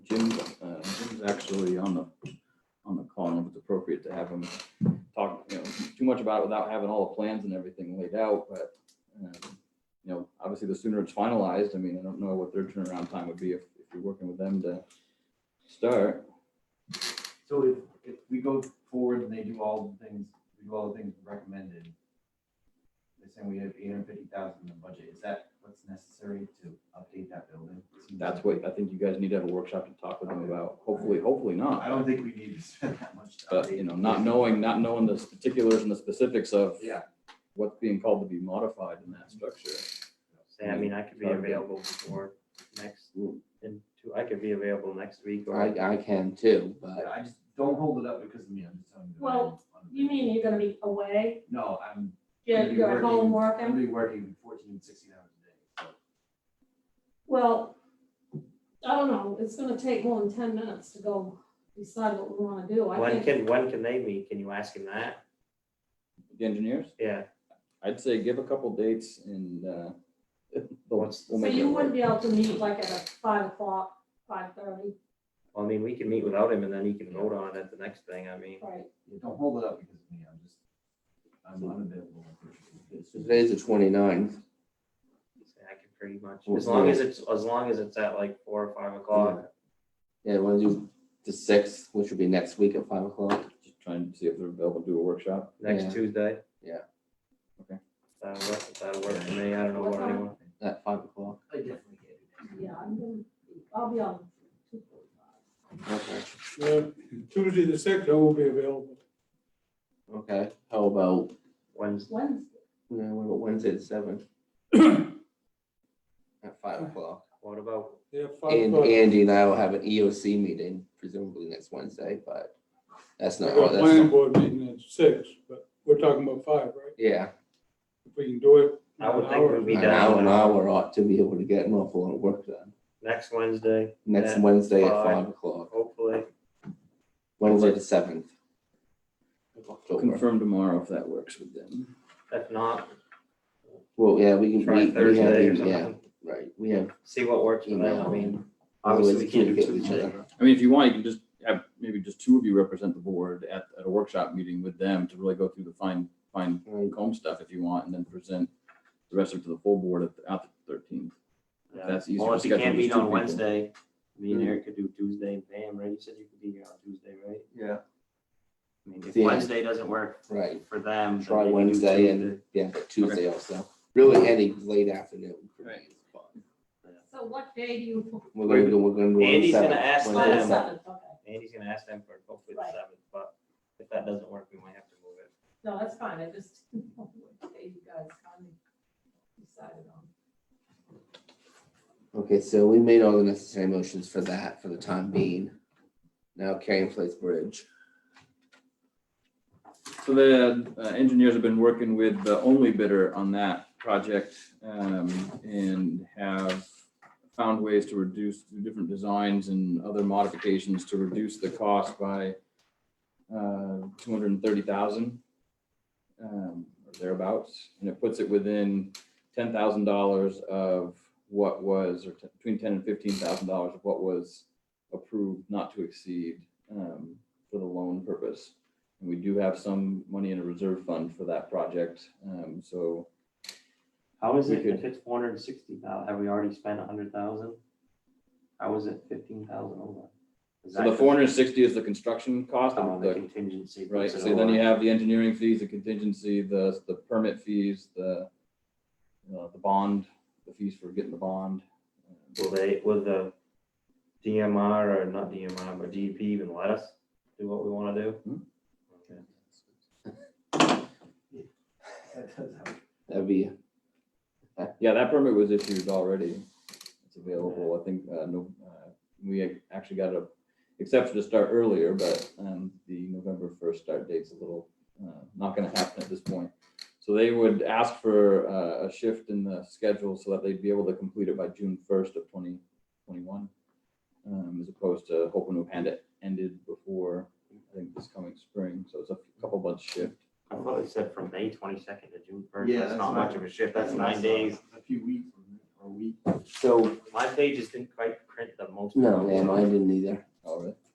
is uh, actually on the, on the call, and it's appropriate to have him talk, you know, too much about it without having all the plans and everything laid out, but, um, you know, obviously, the sooner it's finalized, I mean, I don't know what their turnaround time would be if, if you're working with them to start. So if, if we go forward and they do all the things, we do all the things recommended, they're saying we have eight hundred fifty thousand in the budget, is that what's necessary to update that building? Seems That's like- what, I think you guys need to have a workshop to talk with them about, hopefully, hopefully not. I don't think we need to spend that much. to But, update you know, not knowing, not knowing the particulars and the specifics of Yeah. what's being called to be modified in that structure. Say, I mean, I could be Probably. available before next, Mm. in two, I could be available next week or, I, I can too, but I just, don't hold it up because of me, I'm just telling you. that I Well, am on the- You mean you're gonna be away, No, I'm. gonna you're be you're at home I'm working? gonna be working 14, 16 hours a day, so. Well, I don't know, it's gonna take more than ten minutes to go decide what we wanna do. I when think, can, when can they meet? Can you ask him that? The engineers, Yeah, I'd say give a couple dates and, uh, we'll What's- we'll so make it you work. wouldn't be able to meet like at a five o'clock, five thirty, well, I mean, we can meet without him and then he can vote on it at the next thing, I mean. right? Yeah, don't hold it up because of me, I'm just, I'm unavailable. today's the 29th. say I could pretty much, Well, as long as it's, as long as it's at like four or five o'clock. Yeah, want to do the sixth, which would be next week at five o'clock. Just trying to see if they're available to do a workshop. Yeah. next Tuesday. Yeah. Okay. That'll work, that'll work for me, I don't know what anyone, At five o'clock. I definitely get it. Yeah, I'm gonna, be- I'll be on two forty-five. Okay. Uh, Tuesday the sixth, I will be available. Okay. How about, Wednesday, Wednesday, no, what about Wednesday the seventh? At five o'clock. what about, Yeah, five And o'clock. Andy and I will have an EOC meeting presumably next Wednesday, but that's I not, got a oh, that's planning not, board meeting at six, but we're talking about five, right? yeah. If we can do it. in I would an think hour, we'd be An done. hour, an hour ought to be able to get an awful lot of work done. next Wednesday, Next At Wednesday at five. five o'clock, hopefully, Wednesday the seventh. of October. Confirm tomorrow if that works with them. if not, Well, yeah, we can, try we, we have, Thursday or e- yeah, something, right, we have see what works for them, email. I mean, Otherwise, obviously we can't do communicate with each Tuesday. other. I mean, if you want, you can just have maybe just two of you represent the board at, at a workshop meeting with them to really go through the fine, fine Right. comb stuff if you want, and then present the rest of it to the full board at, the- at the thirteenth. Yeah. That's easier Well, to if you schedule can't these meet two on people. Wednesday, me and Eric could do Tuesday, Pam, right, you said you could be here on Tuesday, right? Yeah. I mean, if Yeah. Wednesday doesn't work Right, for them. then try they can do Wednesday Tuesday. and, yeah, but Tuesday also, really any late afternoon. for me Right. is fine. so what day do you? We're gonna go, we're gonna go. on the Andy's gonna 7th, ask Wednesday Oh, them. the the 7th. seventh, okay, Andy's gonna ask them for hopefully the Right. seventh, but if that doesn't work, we might have to move it. no, that's fine, I just, what day you guys finally decided on. Okay, so we made all the necessary motions for that for the time being. Now Carrying Place Bridge, So the uh, engineers have been working with the only bidder on that project um, and have found ways to reduce through different designs and other modifications to reduce the cost by uh, two hundred and thirty thousand um, or thereabouts. And it puts it within ten thousand dollars of what was, or t- between ten and fifteen thousand dollars of what was approved not to exceed um, for the loan purpose. And we do have some money in a reserve fund for that project. Um, so How is We it, could- if it's four hundred and sixty thousand, have we already spent a hundred thousand? How is it fifteen thousand over? Is so that the four hundred and sixty is the construction cost just on of the the, contingency. right? puts it So then over? you have the engineering fees, the contingency, the, the permit fees, the, uh, the bond, the fees for getting the bond. uh, Will they, will the DMR or not DMR, but DEP even let us do what we wanna Hmm. do? Okay. That does help. that'd be, Yeah, that permit was issued already. It's available. I think, uh, no, uh, we actually got a exception to start earlier, but, um, the November first start date's a little, uh, not gonna happen at this point. So they would ask for, uh, a shift in the schedule so that they'd be able to complete it by June first of twenty twenty-one. Um, as opposed to hoping to hand it ended before, I think, this coming spring. So it's a couple months shift. I thought it said from May twenty-second to June first, Yeah, that's that's not not- much of a shift, that's what I nine saw. days. A few weeks or a week. so, My pages didn't quite print the most. no, yeah, mine didn't either. Oh, really?